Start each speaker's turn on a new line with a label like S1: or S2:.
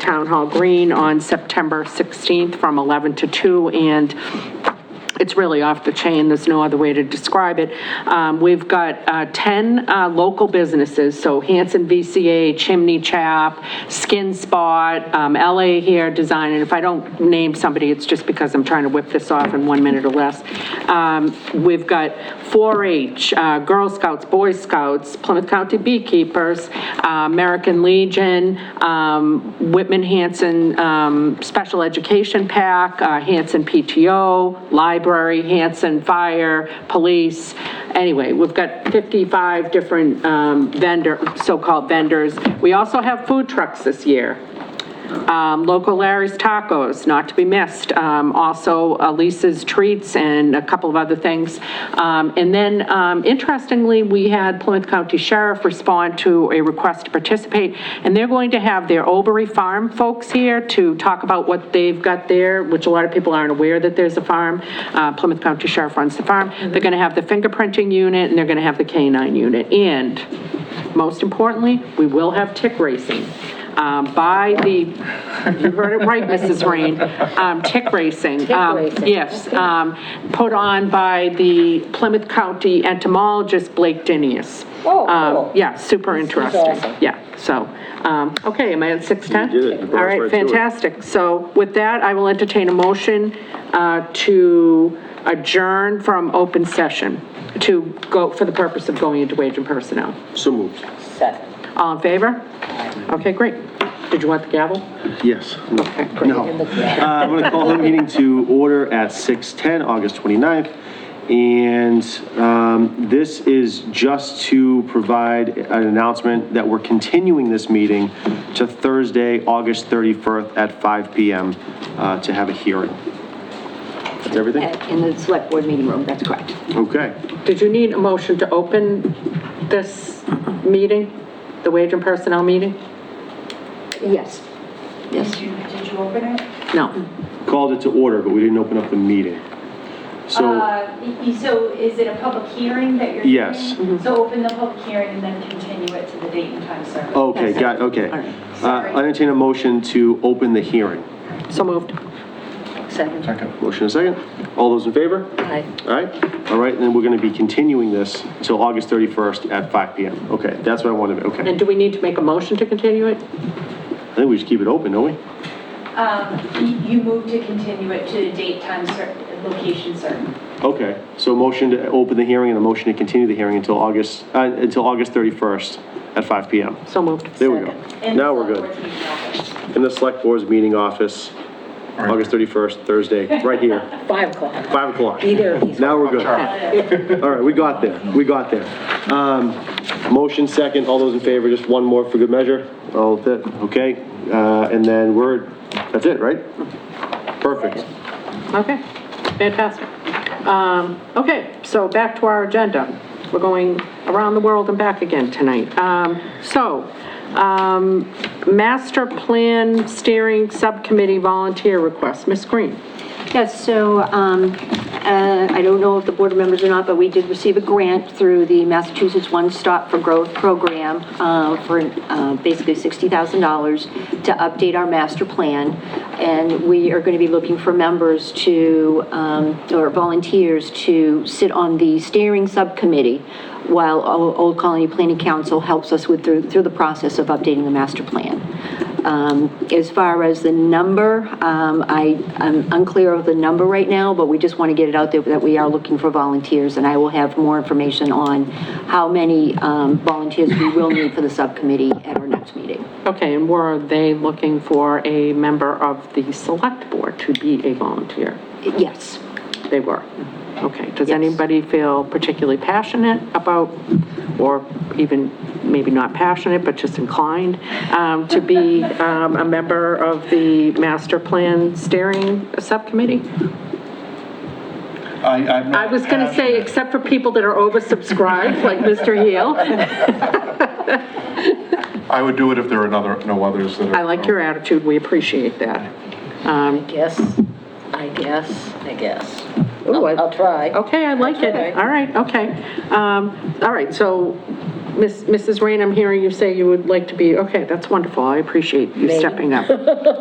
S1: Town Hall Green on September 16th from 11 to 2, and it's really off the chain, there's no other way to describe it. Um, We've got uh, 10 uh, local businesses, so Hanson VCA, Chimney Chap, Skin Spot, um, LA Hair Design, and if I don't name somebody, it's just because I'm trying to whip this off in one minute or less. Um, We've got 4-H, uh, Girl Scouts, Boy Scouts, Plymouth County Beekeepers, uh, American Legion, um, Whitman Hanson um, Special Education Pack, uh, Hanson PTO, Library, Hanson Fire, Police. Anyway, we've got 55 different um, vendor, so-called vendors. We also have food trucks this year. Um, Local Larry's Tacos, not to be missed. Um, Also Elisa's Treats and a couple of other things. Um, And then um, interestingly, we had Plymouth County Sheriff respond to a request to participate. And they're going to have their Oberry Farm folks here to talk about what they've got there, which a lot of people aren't aware that there's a farm. Uh, Plymouth County Sheriff runs the farm. They're going to have the fingerprinting unit and they're going to have the canine unit. And most importantly, we will have tick racing um, by the, you heard it right, Mrs. Rain, um, tick racing. Tick
S2: racing.
S1: Yes, um, put on by the Plymouth County entomologist Blake Dinius.
S2: Oh,
S1: Um,
S2: cool.
S1: Yeah, super interesting.
S2: awesome.
S1: Yeah, so, um, okay, am I at 6:10?
S3: You did it.
S1: All
S3: You brought
S1: right,
S3: us right through it.
S1: fantastic. So with that, I will entertain a motion uh, to adjourn from open session, to go, for the purpose of going into wage and personnel.
S3: So moved.
S2: Second.
S1: All in favor? Okay, great. Did you want the gavel?
S3: Yes. No. Uh, I'm going to call the meeting to order at 6:10, August 29th. And um, this is just to provide an announcement that we're continuing this meeting to Thursday, August 31st at 5 PM uh, to have a hearing. That's everything?
S2: In the select board meeting room, that's correct.
S3: Okay.
S1: Did you need a motion to open this meeting, the wage and personnel meeting?
S2: Yes. Yes.
S4: Did you, did you open it?
S1: No.
S3: Called it to order, but we didn't open up the meeting. So,
S4: Uh, y- y- So is it a public hearing that you're?
S3: Yes. Mm-hmm.
S4: doing? So open the public hearing and then continue it to the date and time certain.
S3: okay, got, okay.
S1: All right.
S3: Uh, I entertain a motion to open the hearing.
S1: So moved.
S2: Second.
S3: Motion and a second. All those in favor?
S2: Aye.
S3: All right, all right, and then we're going to be continuing this till August 31st at 5 PM. Okay, that's what I wanted, to okay.
S1: And do we need to make a motion to continue it?
S3: I think we just keep it open, don't we?
S4: Um, y- You move to continue it to the date, time certain, location certain.
S3: Okay, so motion to open the hearing and a motion to continue the hearing until August, uh, until August 31st at 5 PM.
S1: So moved.
S3: There we go.
S4: And
S3: Now we're
S4: select
S3: good.
S4: board's meeting office.
S3: In the Select Board's meeting office, August 31st, Thursday, right here,
S2: Five o'clock.
S3: 5 o'clock.
S2: Either of these.
S3: Now we're good. All right, we got there, we got there. Um, Motion second, all those in favor, just one more for good measure? All of it, okay? Uh, And then we're, that's it, right? Perfect.
S1: Okay, fantastic. Um, Okay, so back to our agenda. We're going around the world and back again tonight. Um, So, um, Master Plan Steering Subcommittee Volunteer Request, Ms. Green.
S5: Yes, so um, uh, I don't know if the board members or not, but we did receive a grant through the Massachusetts One Stop for Growth Program uh, for uh, basically $60,000 to update our master plan. And we are going to be looking for members to, um, or volunteers to sit on the steering subcommittee while O- Old Colony Planning Council helps us with, through through the process of updating the master plan. Um, As far as the number, um, I, I'm unclear of the number right now, but we just want to get it out there that we are looking for volunteers, and I will have more information on how many um, volunteers we will need for the subcommittee at our next meeting.
S1: Okay, and were they looking for a member of the select board to be a volunteer?
S5: Yes,
S1: They were. Okay, does
S5: Yes.
S1: anybody feel particularly passionate about, or even maybe not passionate, but just inclined um, to be um, a member of the master plan steering subcommittee?
S6: I, I'm
S1: I
S6: not
S1: was going to say,
S6: passionate.
S1: except for people that are oversubscribed, like Mr. Heel.
S6: I would do it if there were another, no others that are.
S1: I like your attitude, we appreciate that.
S2: I guess, I guess, I guess.
S1: Ooh, I-
S2: I'll try.
S1: Okay, I like it.
S2: Okay.
S1: All right, okay. Um, All right, so Miss- Mrs. Rain, I'm hearing you say you would like to be, okay, that's wonderful. I appreciate you stepping up.